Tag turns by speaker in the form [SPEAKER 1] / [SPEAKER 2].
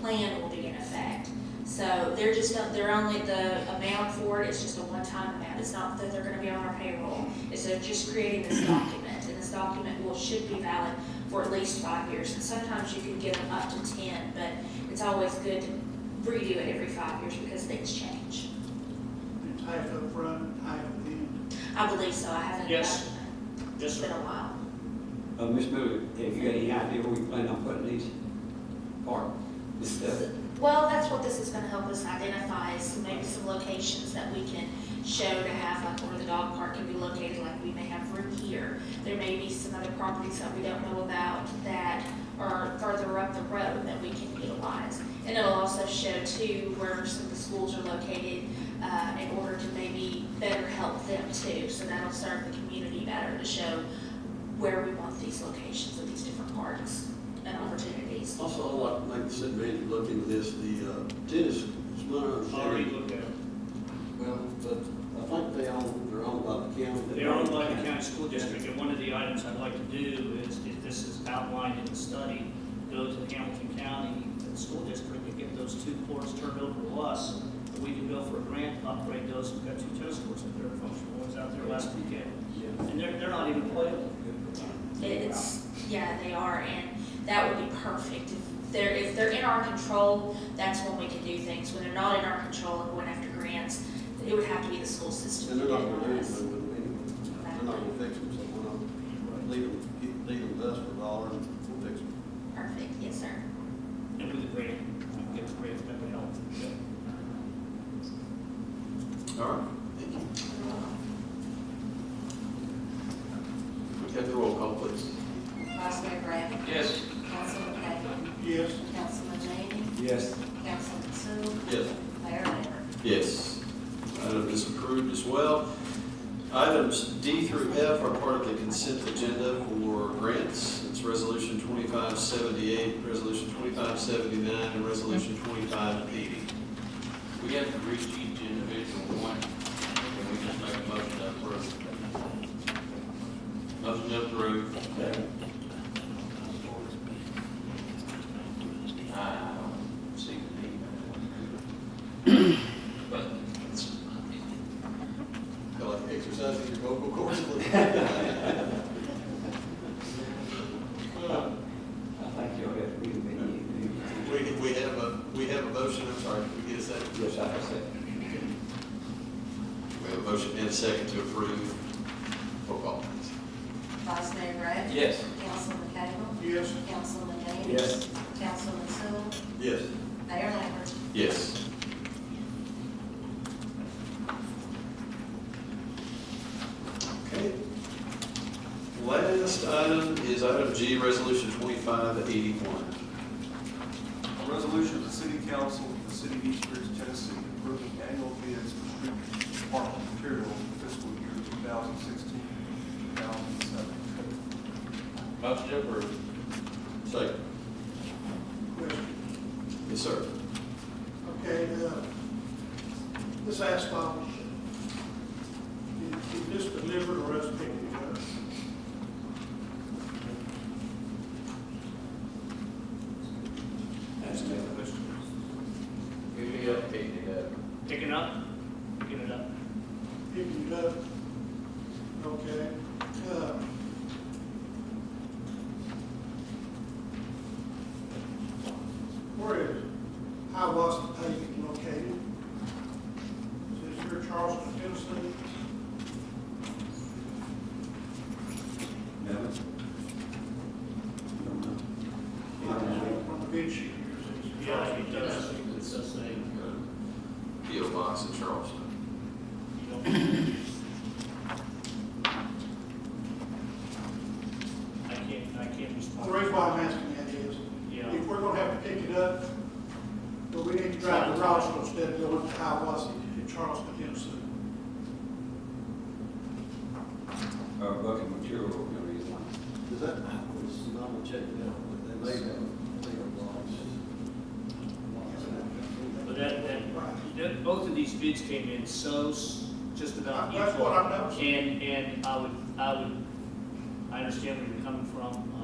[SPEAKER 1] plan will be in effect. So they're just, they're only the amount for it, it's just a one-time amount. It's not that they're gonna be on our payroll. It's they're just creating this document, and this document will, should be valid for at least five years. And sometimes you can give them up to ten, but it's always good to redo it every five years because things change.
[SPEAKER 2] And Type up front and type at the end.
[SPEAKER 1] I believe so, I haven't.
[SPEAKER 3] Yes. Yes,
[SPEAKER 1] It's
[SPEAKER 3] sir.
[SPEAKER 1] been a while.
[SPEAKER 4] Uh, Ms. Miller, have you got any idea where you plan on putting these park, this stuff?
[SPEAKER 1] Well, that's what this is gonna help us identify, is maybe some locations that we can show to have, like where the dog park can be located, like we may have room here. There may be some other properties that we don't know about that are further up the road that we can utilize. And it'll also show too where some of the schools are located, uh, in order to maybe better help them too. So that'll serve the community better to show where we want these locations of these different parks and opportunities.
[SPEAKER 5] Also, I'd like to make this advantage look into this, the uh, tennis, it's my
[SPEAKER 3] Already
[SPEAKER 5] understanding.
[SPEAKER 3] looked at it.
[SPEAKER 5] Well, but I think they own, they're owned by the county.
[SPEAKER 3] They are owned by the county school district, and one of the items I'd like to do is, if this is outlined in the study, go to Hamilton County School District and get those two courts turned over to us. We can go for a grant, upgrade those, we've got two tennis courts, and they're functional ones out there last weekend. And they're, they're not even playable.
[SPEAKER 1] It's, yeah, they are, and that would be perfect. If they're, if they're in our control, that's when we can do things. When they're not in our control and going after grants, it would have to be the school system.
[SPEAKER 5] And they're not
[SPEAKER 1] that
[SPEAKER 5] gonna do
[SPEAKER 1] does.
[SPEAKER 5] anything with them anyway. They're not gonna fix them, so why not leave them, get- leave them to us for a dollar and we'll fix them.
[SPEAKER 1] Perfect, yes, sir.
[SPEAKER 3] And with the grant, we can get the grant, that would help.
[SPEAKER 6] All right, thank you. We have the roll call, please.
[SPEAKER 7] Vice Mayor Brad,
[SPEAKER 6] Yes.
[SPEAKER 7] Councilman Patton,
[SPEAKER 2] Yes,
[SPEAKER 7] Councilman Janey,
[SPEAKER 4] Yes.
[SPEAKER 7] Councilman Sue,
[SPEAKER 5] Yes.
[SPEAKER 7] Mayor Lambert.
[SPEAKER 6] Yes. Item is approved as well. Items D through F are part of the consent agenda for grants. It's Resolution 2578, Resolution 2579, and Resolution 2580.
[SPEAKER 8] We have to reach each individual one, and we just make a motion to approve. Motion to approve. I don't see the need. But it's,
[SPEAKER 5] Feel like exercising your vocal cords a little bit.
[SPEAKER 4] I think y'all have to be with me.
[SPEAKER 5] We, we have a, we have a motion, I'm sorry, can we get a second?
[SPEAKER 4] Yes, I have said.
[SPEAKER 6] We have a motion and a second to approve. Roll call, please.
[SPEAKER 7] Vice Mayor Brad,
[SPEAKER 8] yes,
[SPEAKER 7] Councilman Cagle,
[SPEAKER 2] yes,
[SPEAKER 7] Councilman Janey.
[SPEAKER 4] Yes.
[SPEAKER 7] Councilman Sue,
[SPEAKER 5] Yes.
[SPEAKER 7] Mayor Lambert.
[SPEAKER 6] Yes. Okay. Last item is item G, resolution twenty-five eighty-one.
[SPEAKER 9] A resolution of the City Council of the City of East Ridge, Tennessee, approving annual bids for street department materials for fiscal year 2016, 2017.
[SPEAKER 8] motion to approve.
[SPEAKER 6] Second.
[SPEAKER 2] question.
[SPEAKER 6] Yes, sir.
[SPEAKER 2] Okay, uh, this asphalt, is is this delivered or us picking it up?
[SPEAKER 4] That's me.
[SPEAKER 8] Give me up, take it up.
[SPEAKER 3] Pick it up, get it up.
[SPEAKER 2] Picking it up? Okay. uh, Where is Hiawassee paving located? Is this here Charleston, Tennessee?
[SPEAKER 4] No. Don't know.
[SPEAKER 2] I don't know, on the bid sheet here, it says Charleston, Tennessee.
[SPEAKER 3] It's the same.
[SPEAKER 6] P O Box in Charleston.
[SPEAKER 3] You don't- I can't, I can't respond.
[SPEAKER 2] The reason why I'm asking that is,
[SPEAKER 3] Yeah.
[SPEAKER 2] if we're gonna have to pick it up, but we need to drive to Roswell instead of going to Hiawassee in Charleston, Tennessee.
[SPEAKER 4] Uh, bucket material, no reason.
[SPEAKER 5] Does that, I was, I'm gonna check it out, but they may have, they have lots.
[SPEAKER 3] But that, that,
[SPEAKER 2] Right.
[SPEAKER 3] that- both of these bids came in so, s- just about equal.
[SPEAKER 2] That's what I noticed.
[SPEAKER 3] And, and I would, I would, I understand where you're coming from, uh,